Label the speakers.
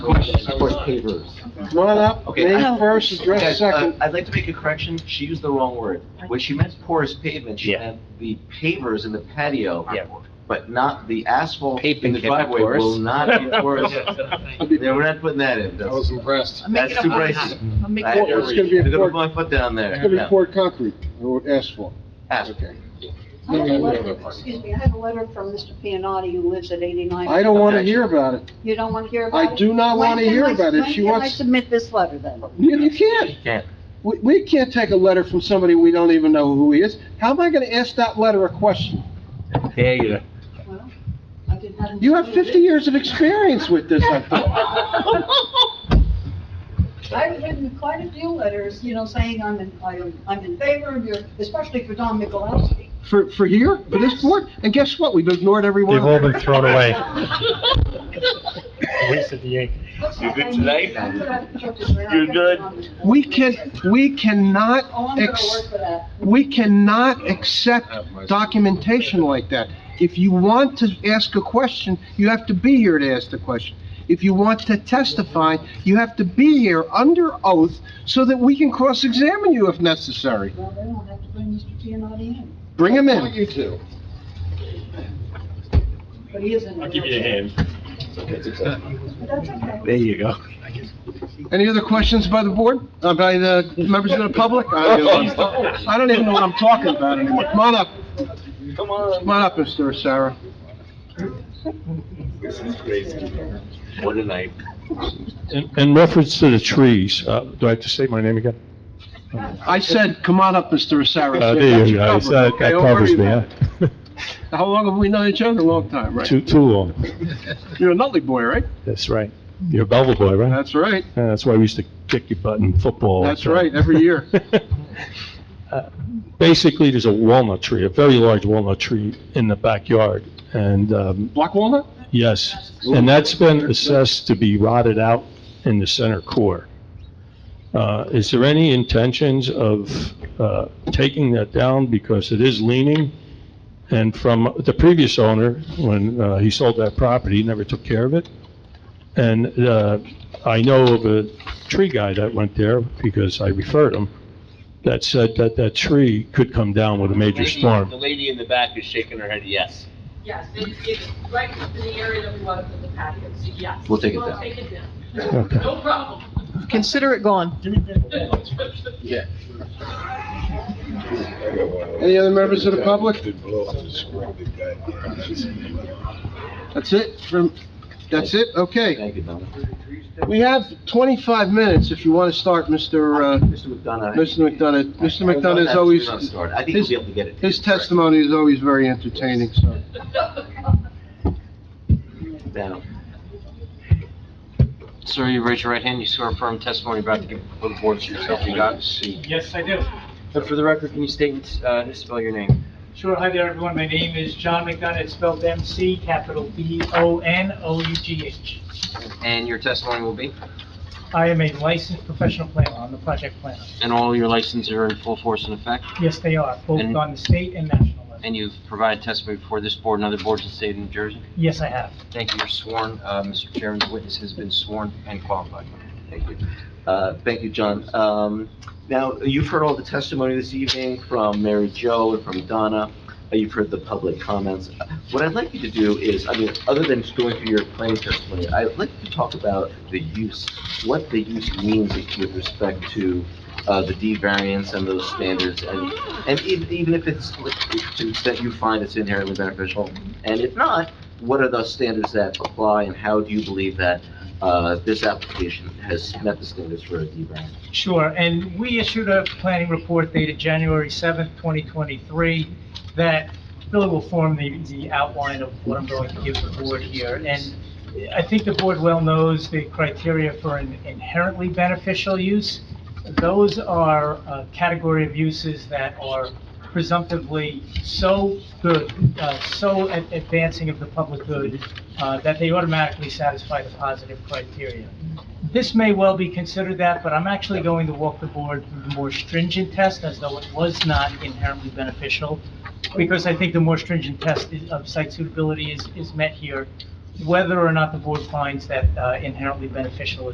Speaker 1: Questions?
Speaker 2: Of course, pavers.
Speaker 3: One up,
Speaker 1: Okay, I-
Speaker 3: name first, address
Speaker 1: Guys, uh,
Speaker 3: second.
Speaker 1: I'd like to make a correction. She used the wrong word. When she meant porous pavement, she
Speaker 4: Yeah.
Speaker 1: meant the pavers in the patio.
Speaker 4: Yeah.
Speaker 1: But not, the asphalt in
Speaker 4: Pavement
Speaker 1: the
Speaker 4: can be
Speaker 1: driveway
Speaker 4: porous.
Speaker 1: will not be porous. Yeah, we're not putting that in.
Speaker 2: I
Speaker 1: That's
Speaker 2: was impressed.
Speaker 5: I'm making
Speaker 1: that's too
Speaker 5: up my
Speaker 1: brazy.
Speaker 5: mind. I'm making
Speaker 1: I-
Speaker 5: up
Speaker 3: Well,
Speaker 5: my
Speaker 3: it's
Speaker 5: mind.
Speaker 3: gonna be
Speaker 1: They're
Speaker 3: a
Speaker 1: gonna
Speaker 3: poured,
Speaker 1: put my foot down there.
Speaker 3: it's gonna be
Speaker 1: No,
Speaker 3: poured concrete, or asphalt.
Speaker 1: asphalt.
Speaker 3: Okay.
Speaker 6: I have a letter- Excuse me, I have a letter from Mr. Pianotti who lives at 89.
Speaker 3: I don't wanna hear about it.
Speaker 6: You don't want to hear about
Speaker 3: I
Speaker 6: it?
Speaker 3: do not
Speaker 6: When
Speaker 3: wanna
Speaker 6: can
Speaker 3: hear
Speaker 6: I-
Speaker 3: about it.
Speaker 6: when
Speaker 3: She
Speaker 6: can I
Speaker 3: wants,
Speaker 6: submit this letter then?
Speaker 3: you, you can't.
Speaker 1: You can't.
Speaker 3: We, we can't take a letter from somebody we don't even know who he is. How am I gonna ask that letter a question?
Speaker 4: There you go.
Speaker 6: Well, I didn't have him
Speaker 3: You have
Speaker 6: submit it.
Speaker 3: fifty years of experience with this, I thought.
Speaker 6: I've written quite a few letters, you know, saying I'm in, I'm I'm in favor of your, especially for Don Mikulowski.
Speaker 3: For, for here, for this board? And guess what? We've ignored every one
Speaker 7: They've
Speaker 3: of
Speaker 7: all
Speaker 3: them.
Speaker 7: been thrown away. Waste of the ink.
Speaker 6: You good tonight?
Speaker 4: You good?
Speaker 3: We can, we cannot
Speaker 6: Oh, I'm gonna
Speaker 3: ex-
Speaker 6: work for that.
Speaker 3: We cannot accept documentation like that. If you want to ask a question, you have to be here to ask the question. If you want to testify, you have to be here under oath so that we can cross-examine you if necessary.
Speaker 6: Well, then I'll have to bring Mr. Pianotti in,
Speaker 3: Bring him
Speaker 2: Why don't
Speaker 3: in.
Speaker 2: You two.
Speaker 6: but he isn't.
Speaker 7: I'll give you a hand.
Speaker 6: That's okay.
Speaker 4: There you go.
Speaker 3: Any other questions by the board, Uh, by the members of the public? I don't know. I don't even know what I'm talking about anymore. Come on up. Come on. Come on up, Mr. Sarah.
Speaker 1: What a night.
Speaker 7: In, in reference to the trees, uh, do I have to say my name again?
Speaker 3: I said, come on up, Mr. Sarah.
Speaker 7: Uh, there you go, It's, uh, that covers me, huh?
Speaker 3: How long have we known each other? A long time, right?
Speaker 7: Too, too long,
Speaker 3: You're a Nutley boy, right?
Speaker 7: that's right. You're a Belleville boy, right?
Speaker 3: That's right.
Speaker 7: Yeah, That's why we used to kick your butt in football.
Speaker 3: That's right, every year.
Speaker 7: Uh, Basically, there's a walnut tree, a very large walnut tree in the backyard, and, um,
Speaker 3: Black Walnut?
Speaker 7: Yes, and that's been assessed to be rotted out in the center core. Uh, Is there any intentions of uh, taking that down because it is leaning? And from the previous owner, when uh, he sold that property, he never took care of it. And uh, I know of a tree guy that went there, because I referred him, that said that that tree could come down with a major storm.
Speaker 8: The lady in the back is shaking her head yes.
Speaker 5: Yes, it's, it's right in the area that we want to put the patio, so yes.
Speaker 1: We'll take it down.
Speaker 5: take it down.
Speaker 7: Okay.
Speaker 5: No problem.
Speaker 8: Consider it gone.
Speaker 3: Any other members of the public? That's it from, that's it? Okay.
Speaker 1: Thank you, Donna.
Speaker 3: We have 25 minutes if you want to start, Mr. uh,
Speaker 1: Mr. McDonough.
Speaker 3: Mr. McDonough. Mr.
Speaker 1: I- I want
Speaker 3: McDonough
Speaker 1: that
Speaker 3: is
Speaker 1: to
Speaker 3: always,
Speaker 1: not start. I think we'll be able to get it.
Speaker 3: his testimony is always very entertaining, so.
Speaker 1: Down.
Speaker 8: Sir, you raise your right hand, you swear a firm testimony you're about to give before the board to yourself you got.
Speaker 9: Yes, I do.
Speaker 8: But for the record, can you state, uh, spell your name?
Speaker 9: Sure, hi there, everyone. My name is John McDonough. It's spelled M-C, capital B-O-N-O-U-G-H.
Speaker 8: And your testimony will be?
Speaker 9: I am a licensed professional planner. I'm the project planner.
Speaker 8: And all your licenses are in full force and effect?
Speaker 9: Yes, they are, both
Speaker 8: And-
Speaker 9: on the state and national level.
Speaker 8: And you've provided testimony before this board and other boards in the state of New Jersey?
Speaker 9: Yes, I have.
Speaker 8: Thank you, you're sworn. Uh, Mr. Chairman, the witness has been sworn and qualified.
Speaker 1: Thank you. Uh, Thank you, John. Um, Now, you've heard all the testimony this evening from Mary Jo and from Donna. Uh, You've heard the public comments. What I'd like you to do is, I mean, other than just going through your planning testimony, I'd like you to talk about the use, what the use means with respect to uh, the D variance and those standards, and, and even even if it's, to the extent you find it's inherently beneficial, and if not, what are those standards that apply, and how do you believe that uh, this application has met the standards for a D variance.
Speaker 9: Sure, and we issued a planning report dated January 7th, 2023, that really will form the, the outline of what I'm going to give the board here. And I think the board well knows the criteria for an inherently beneficial use. Those are a category of uses that are presumptively so good, uh, so ad- advancing of the public good, uh, that they automatically satisfy the positive criteria. This may well be considered that, but I'm actually going to walk the board through the more stringent test as though it was not inherently beneficial, because I think the more stringent test is- of site suitability is, is met here. whether or not the board finds that uh, inherently beneficial